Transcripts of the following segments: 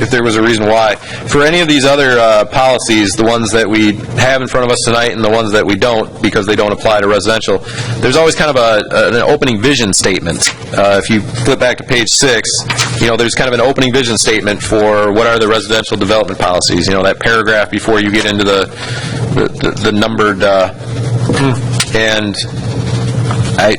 if there was a reason why. For any of these other uh, policies, the ones that we have in front of us tonight and the ones that we don't, because they don't apply to residential, there's always kind of a, an opening vision statement. Uh, If you flip back to page six, you know, there's kind of an opening vision statement for what are the residential development policies, you know, that paragraph before you get into the, the- the numbered, uh, and I,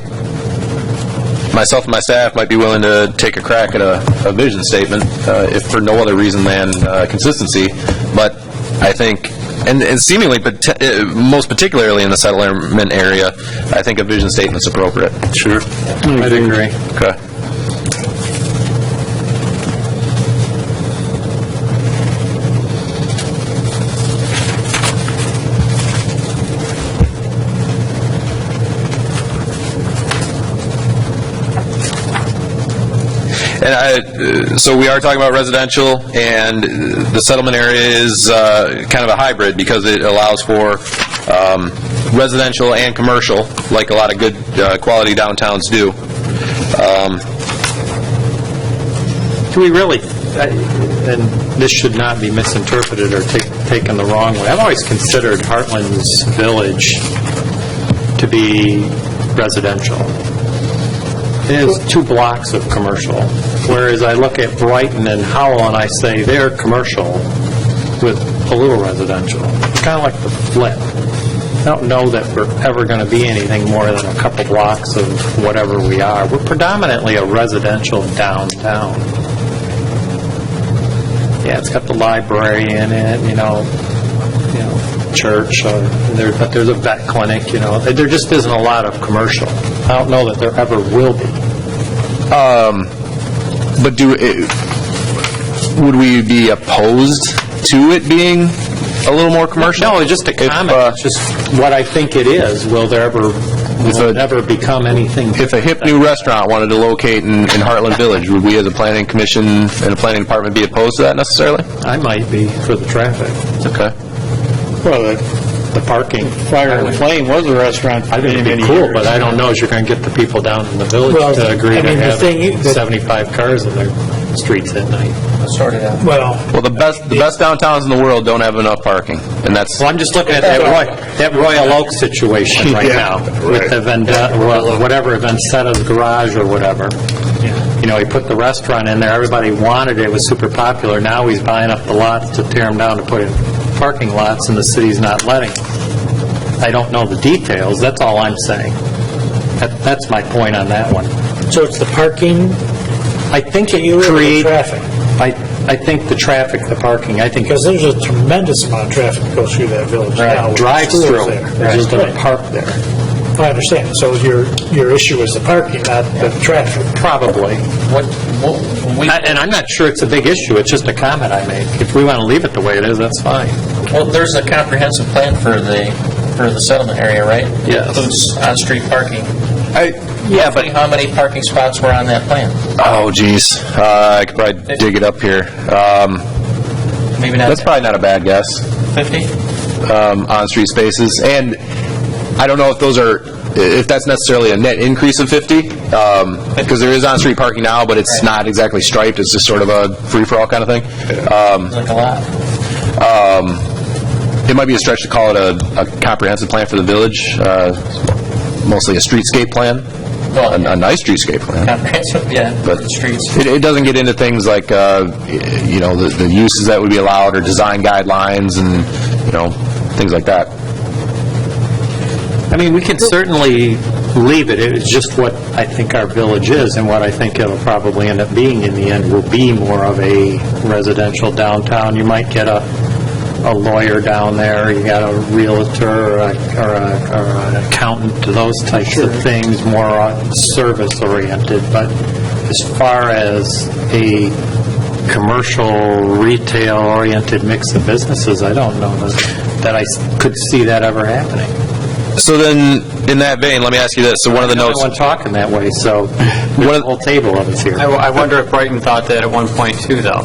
myself and my staff might be willing to take a crack at a, a vision statement, uh, if for no other reason than uh, consistency, but I think, and and seemingly, but uh, most particularly in the settlement area, I think a vision statement's appropriate. Sure. I agree. Okay. And I, uh, so we are talking about residential, and uh, the settlement area is uh, kind of a hybrid because it allows for um, residential and commercial, like a lot of good uh, quality downtowns do. Um, Do we really, I- and this should not be misinterpreted or ta- taken the wrong way, I've always considered Heartland's Village to be residential. It is two blocks of commercial, whereas I look at Brighton and Howell and I say they're commercial with a little residential. It's kind of like the flip. I don't know that we're ever going to be anything more than a couple blocks of whatever we are. We're predominantly a residential downtown. Yeah, it's got the library in it, you know, you know, church, uh, there, but there's a vet clinic, you know, there just isn't a lot of commercial. I don't know that there ever will be. But do, eh, would we be opposed to it being a little more commercial? No, it's just a If, uh, comment, it's just what I think it is, will there ever, will it a- ever become anything? If a hip new restaurant wanted to locate in, in Heartland Village, would we as a planning commission and a planning department be opposed to that necessarily? I might be for the traffic, Okay. Well, the the parking. Fire and Flame was a restaurant for I think many, it'd many be cool, years. but I don't know if you're going to get the people down in the village Well, to agree I to mean, the have thing is that- 75 cars in their streets at night. Well, Well, the best, the best downtowns in the world don't have enough parking, and that's, Well, I'm just looking at that Roy, that Royal Oak situation right now, with the vendetta, well, whatever, Vendetta's Garage or whatever. You know, he put the restaurant in there, everybody wanted it, it was super popular, now he's buying up the lots to tear them down to put in parking lots, and the city's not letting. him. I don't know the details, that's all I'm saying. That- That's my point on that one. so it's the parking, I think Can you it limit the create... traffic? I, I think the traffic, the parking, I think... because there's a tremendous amount of traffic that goes through that village now. with the schools Drive-through, there. they're just going to park there. I understand, so your, your issue is the parking, not the traffic. Probably. I- And I'm not sure it's a big issue, it's just a comment I made. If we want to leave it the way it is, that's fine. Well, there's a comprehensive plan for the, for the settlement area, right? Yes. Includes on-street parking. yeah, Roughly but, How many parking spots were on that plan? oh geez, uh, I could probably dig it up here. Um, Maybe not that's probably not a bad guess, 50? um, on-street spaces, and I don't know if those are, if that's necessarily a net increase of 50, um, because there is on-street parking now, but it's not exactly striped, it's just sort of a free-for-all kind of thing. Um, Like a lot. it might be a stretch to call it a, a comprehensive plan for the village, uh, mostly a streetscape plan, Well, a, a nice streetscape plan. Comprehensive, yeah, for But- the streets. It, it doesn't get into things like, uh, y- you know, the, the uses that would be allowed or design guidelines and, you know, things like that. I mean, we can certainly leave it, it's just what I think our village is, and what I think it'll probably end up being in the end will be more of a residential downtown. You might get a a lawyer down there, you got a realtor, or a- or a- or an accountant, those types of things, more uh, service-oriented, but as far as a commercial, retail-oriented mix of businesses, I don't know that that I s- could see that ever happening. So then, in that vein, let me ask you this, so one of the No notes, one talking that way, so One there's a of- whole table of us here. I I wonder if Brighton thought that at one point too, though.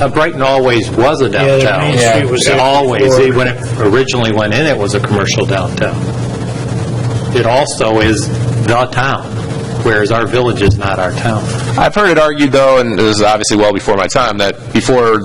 Uh, Brighton always was a Yeah, the downtown. Main Street was there Always. before. It- When it originally went in, it was a commercial downtown. It also is the town, whereas our village is not our town. I've heard it argued though, and this is obviously well before my time, that before